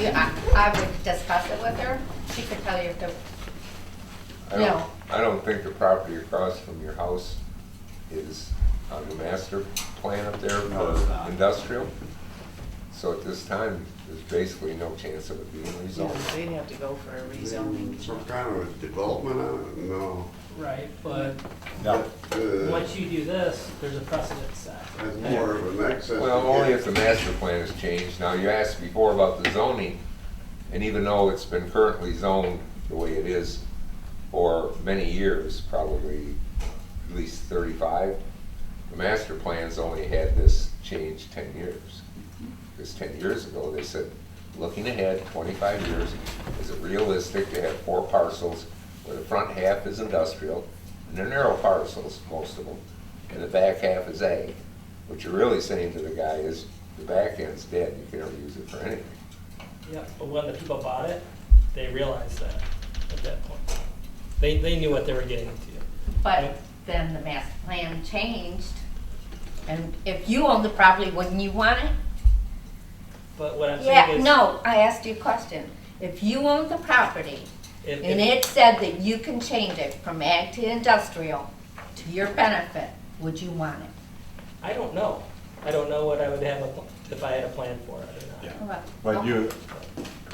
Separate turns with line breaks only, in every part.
you, I, I would discuss it with her. She could tell you if the,
I don't,
No.
I don't think the property across from your house is on the master plan up there
No, it's
for
not.
industrial. So at this time, there's basically no chance of it being
So
rezoned.
they'd have to go for a
Some
rezoning.
kind of development on it? No.
Right, but
No,
Uh,
once you do this, there's a precedent set.
That's more of an excess.
Well, only if the master plan has changed. Now, you asked before about the zoning, and even though it's been currently zoned the way it is for many years, probably at least thirty-five, the master plan's only had this change ten years. Because ten years ago, they said, looking ahead, twenty-five years, is it realistic to have four parcels where the front half is industrial, and they're narrow parcels, most of them, and the back half is ag? What you're really saying to the guy is, the back end's dead, you can never use it for anything.
Yeah, but when the people bought it, they realized that at that point. They, they knew what they were getting into.
but then the master plan changed. And if you own the property, wouldn't you want it?
But what I'm saying
Yeah,
is.
no, I asked you a question. If you own the property
if-
and
if-
it said that you can change it from ag to industrial to your benefit, would you want it?
I don't know. I don't know what I would have, a pl- if I had a plan for it or
yeah.
not.
Well,
But you,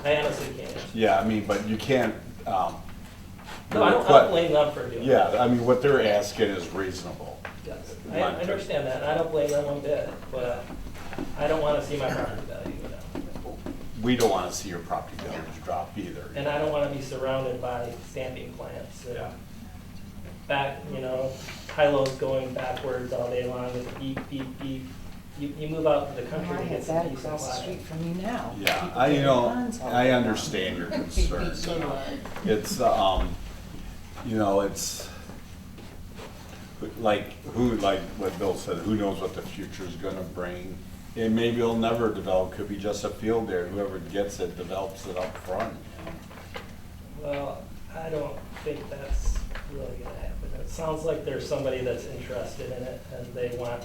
I honestly can't.
yeah, I mean, but you can't, um.
No, I don't, I
but-
don't blame them for doing it.
Yeah, I mean, what they're asking is reasonable.
Yes, I I understand that, and I don't blame them one bit, but I don't wanna see my property value go down.
We don't wanna see your property values drop
And
either.
I don't wanna be surrounded by standing plants
Yeah.
that back, you know, high-lows going backwards all day long, with beep, beep, beep. You, you move out to the
I
country and
have
get some
that
decent
across the street
water.
from you now.
Yeah,
People
I, you
getting
know,
lawns all
I
around.
understand your
Big
concerns.
beach lawn.
It's, um, you know, it's like, who, like what Bill said, who knows what the future's gonna bring? And maybe it'll never develop, could be just a field there, whoever gets it develops it up front. you know?
Well, I don't think that's really gonna happen. It sounds like there's somebody that's interested in it, and they want,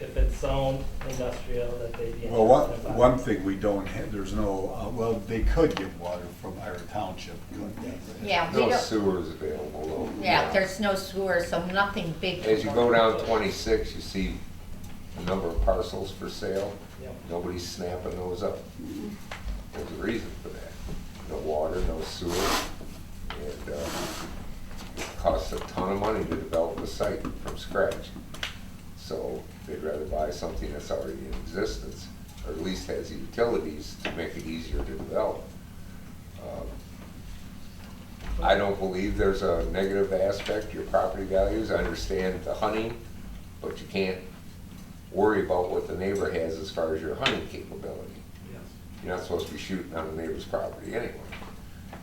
if it's zone industrial, that they be interested in
Well, one,
buying.
one thing we don't have, there's no, uh, well, they could get water from our township, couldn't they?
Yeah, we
No
don't,
sewers available though.
yeah, there's no sewer, so nothing big.
As you go down twenty-six, you see a number of parcels for sale.
Yep.
Nobody's snapping those up. There's a reason for that. No water, no sewer. And, uh, it costs a ton of money to develop a site from scratch. So they'd rather buy something that's already in existence, or at least has utilities to make it easier to develop. Um, I don't believe there's a negative aspect to your property values. I understand the hunting, but you can't worry about what the neighbor has as far as your hunting capability. You're not supposed to be shooting on the neighbor's property anyway.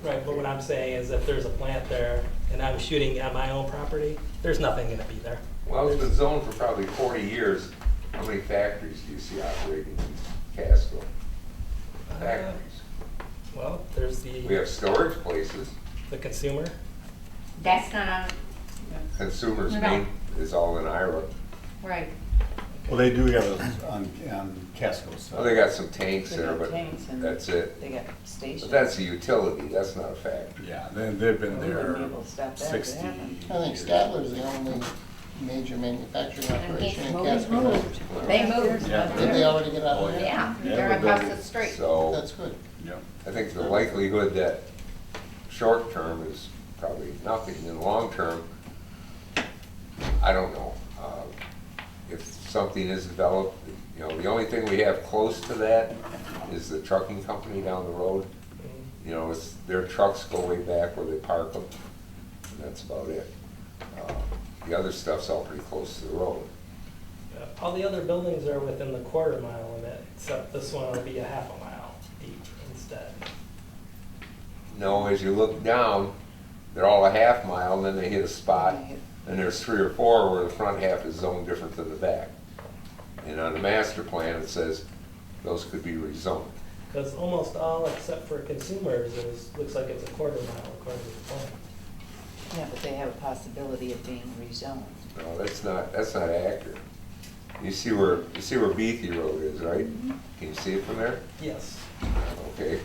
Right, but what I'm saying is if there's a plant there and I'm shooting at my own property, there's nothing gonna be there.
Well, it's been zoned for probably forty years. How many factories do you see operating in Casco?
Uh,
Factories.
Well, there's
We
the,
have storage places.
the consumer.
That's not on,
Consumers
No.
Main is all in Ira.
right.
Well, they do have it on, on Casco
Oh, they
side.
got some tanks
They
there,
got
but
tanks and-
that's it.
They got stations.
But that's a utility, that's not a factory.
Yeah, they, they've been
We wouldn't
there
be able to stop that if it
sixty.
happened.
I think Statler's the only major manufacturing operation in
Well, we
Casco.
moved. They moved,
Did they already get out
Oh,
of there?
yeah,
Yeah,
they're
we're
across
building.
the street.
So
That's good.
Yeah.
I think the likelihood that short term is probably nothing, and long term, I don't know. Uh, If something is developed, you know, the only thing we have close to that is the trucking company down the road. You know, it's, their trucks go way back where they park them, and that's about it. Uh, The other stuff's all pretty close to the road.
Uh, All the other buildings are within the quarter mile limit, except this one will be a half a mile deep instead.
No, as you look down, they're all a half mile, and then they hit a spot,
They hit-
and there's three or four where the front half is zoned different than the back. And on the master plan, it says those could be rezoned.
Because almost all except for consumers is, looks like it's a quarter mile according to the plan.
Yeah, but they have a possibility of being rezoned.
No, that's not, that's not accurate. You
Mm-hmm.
see where, you see where Beatty Road is, right? Can you see it from there?
Yes.
Okay,